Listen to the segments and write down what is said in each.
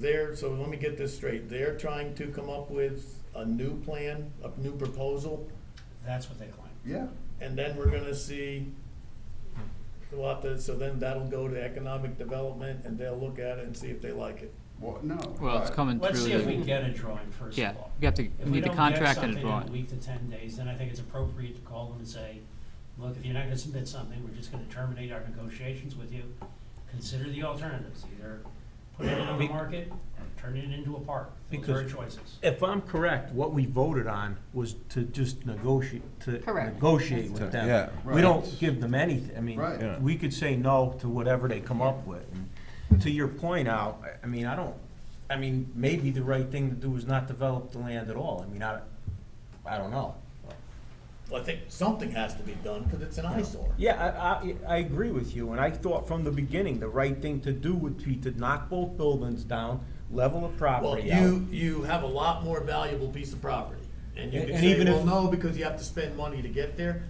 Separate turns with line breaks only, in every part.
They're, so let me get this straight, they're trying to come up with a new plan, a new proposal,
That's what they claim.
Yeah,
and then we're gonna see what the, so then that'll go to economic development, and they'll look at it and see if they like it.
well, no.
Well, it's
uh,
coming through.
Let's see if we
the-
get a drawing first
Yeah,
of all.
we have to, we
If we
need the
don't get
contract and
something
a
in a
drawing.
week to ten days, then I think it's appropriate to call them and say, look, if you're not gonna submit something, we're just gonna terminate our negotiations with you. Consider the alternatives, either put it on the
Be-
market or turn it into a park. Those are
Because-
our choices.
If I'm correct, what we voted on was to just negotiate, to
Correct.
negotiate with them.
Yeah.
We
Right.
don't give them anything, I mean,
Right.
Yeah.
we could say no to whatever they come up with. And To your point out, I mean, I don't, I mean, maybe the right thing to do is not develop the land at all, I mean, I, I don't know.
Well, I think something has to be done, because it's an eyesore.
Yeah, I, I, I agree with you, and I thought from the beginning, the right thing to do would be to knock both buildings down, level the
Well,
property out.
you, you have a lot more valuable piece of property, and you
And-
can
and
say,
even
well,
if-
no, because you have to spend money to get there.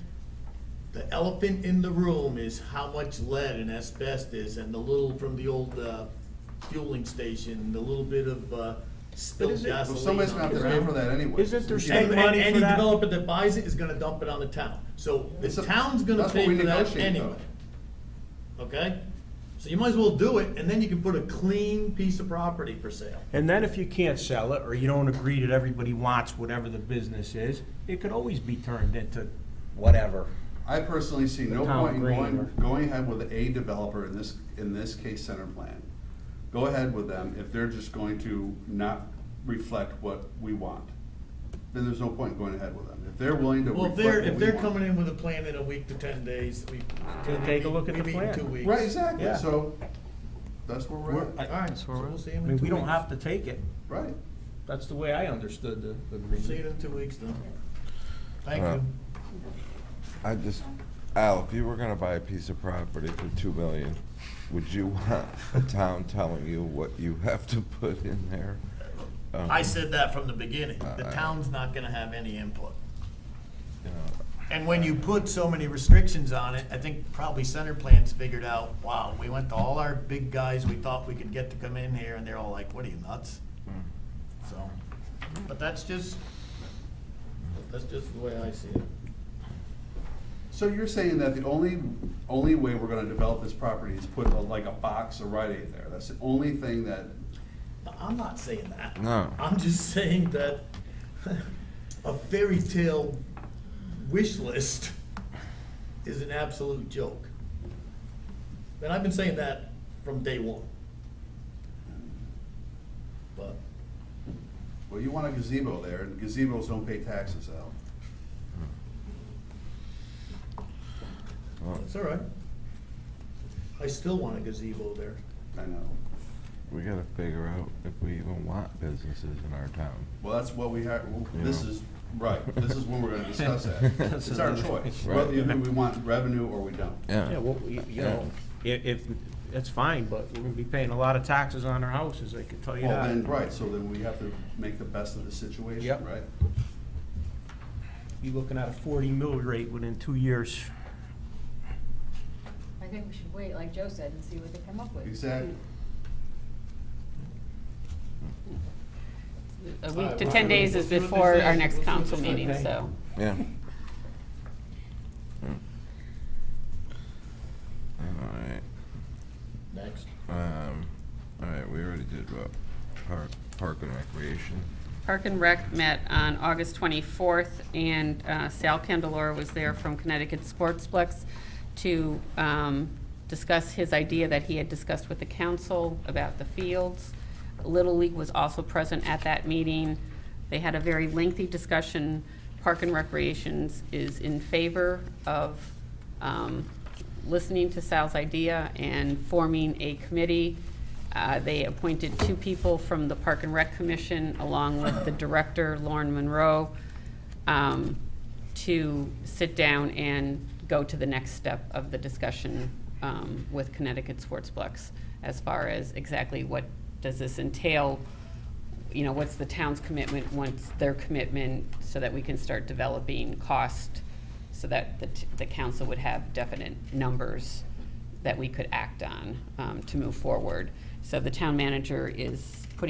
The elephant in the room is how much lead and asbestos and the little from the old, uh, fueling station, the little bit of, uh, spilled
is it- well,
Well,
gasoline.
somebody's gonna
on
have
the
to pay
ground.
for that anyway.
Isn't there
You
some-
can't-
And,
Save
and
money
any
for that.
developer that buys it is gonna dump it on the town, so the
It's a-
town's gonna
that's what
pay
we
for that
negotiate, though.
anyway. Okay? So you might as well do it, and then you can put a clean piece of property for sale.
And then if you can't sell it, or you don't agree that everybody wants whatever the business is, it could always be turned into whatever.
I personally see no
Town
point in
green
going,
or-
going ahead with a developer in this, in this case center plan. Go ahead with them if they're just going to not reflect what we want. Then there's no point going ahead with them. If they're willing to
Well, if
reflect what
they're, if
we
they're
want.
coming in with a plan in a week to ten days, we.
Then take a look at
we
the
meet in
plan.
Two weeks.
Right, exactly,
Yeah.
so that's where we're
We're-
at,
I-
All right,
That's
so
where we're
we'll
at.
see
I
him in two
mean,
weeks.
we don't have to take it.
right.
That's the way I understood the
See
the
you
agreement.
in two weeks then. Thank
Uh,
you.
I just, Al, if you were gonna buy a piece of property for two million, would you want a town telling you what you have to put in there? Um,
I said that from the beginning. The
Uh, I-
town's not gonna have any input.
you know,
And when you put so many restrictions on it, I think probably Center Plan's figured out, wow, we went to all our big guys we thought we could get to come in here, and they're all like, what are you, nuts?
Hmm.
So, but that's just, that's just the way I see it.
So you're saying that the only, only way we're gonna develop this property is put a- like a box of Rite Aid there? That's the only thing that,
I'm not saying that.
No.
I'm just saying that a fairy tale wish list is an absolute joke. And I've been saying that from day one. But,
well, you want a gazebo there, and gazebos don't pay taxes, Al.
well,
it's all right. I still want a gazebo there.
I know.
We gotta figure out if we even want businesses in our town.
Well, that's what we have, well, this
Yeah.
is, right, this is when we're gonna discuss that. It's our choice,
Right.
whether either we want revenue or we don't.
Yeah, well, you you know, i- if, that's fine, but we're gonna be paying a lot of taxes on our houses, I can tell you
Well, then,
that.
right, so then we have to make the best of the situation,
Yep.
right?
You're looking at a forty mil rate within two years.
I think we should wait, like Joe said, and see what they come up with.
Exactly.
A week to 10 days is before our next council meeting, so.
Yeah. Yeah. All right,
Next.
um, all right, we already did, uh, park, park and recreation.
Park and Rec met on August 24th, and uh, Sal Candelora was there from Connecticut Sportsplex to um, discuss his idea that he had discussed with the council about the fields. Little League was also present at that meeting. They had a very lengthy discussion. Park and Recreations is in favor of um, listening to Sal's idea and forming a committee. Uh, They appointed two people from the Park and Rec Commission, along with the director, Lauren Monroe, um, to sit down and go to the next step of the discussion um, with Connecticut Sportsplex, as far as exactly what does this entail, you know, what's the town's commitment, what's their commitment, so that we can start developing cost, so that the, t- the council would have definite numbers that we could act on um, to move forward. So the town manager is putting